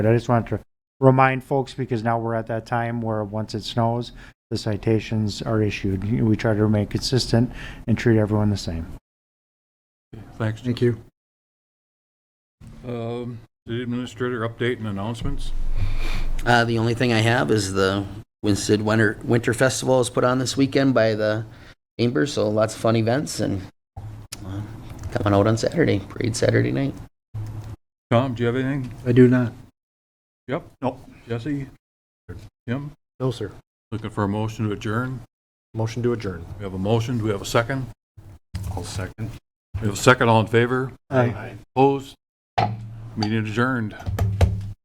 But I just wanted to remind folks, because now we're at that time where once it snows, the citations are issued. We try to remain consistent and treat everyone the same. Thanks. Thank you. Um, City Administrator, update and announcements? Uh, the only thing I have is the Winston Winter, Winter Festival is put on this weekend by the Chamber, so lots of fun events and uh, coming out on Saturday, parade Saturday night. Tom, do you have anything? I do not. Yep. Nope. Jesse? Tim? No, sir. Looking for a motion to adjourn? Motion to adjourn. We have a motion, do we have a second? I'll second. We have a second, all in favor? Aye. Opposed? Meeting adjourned.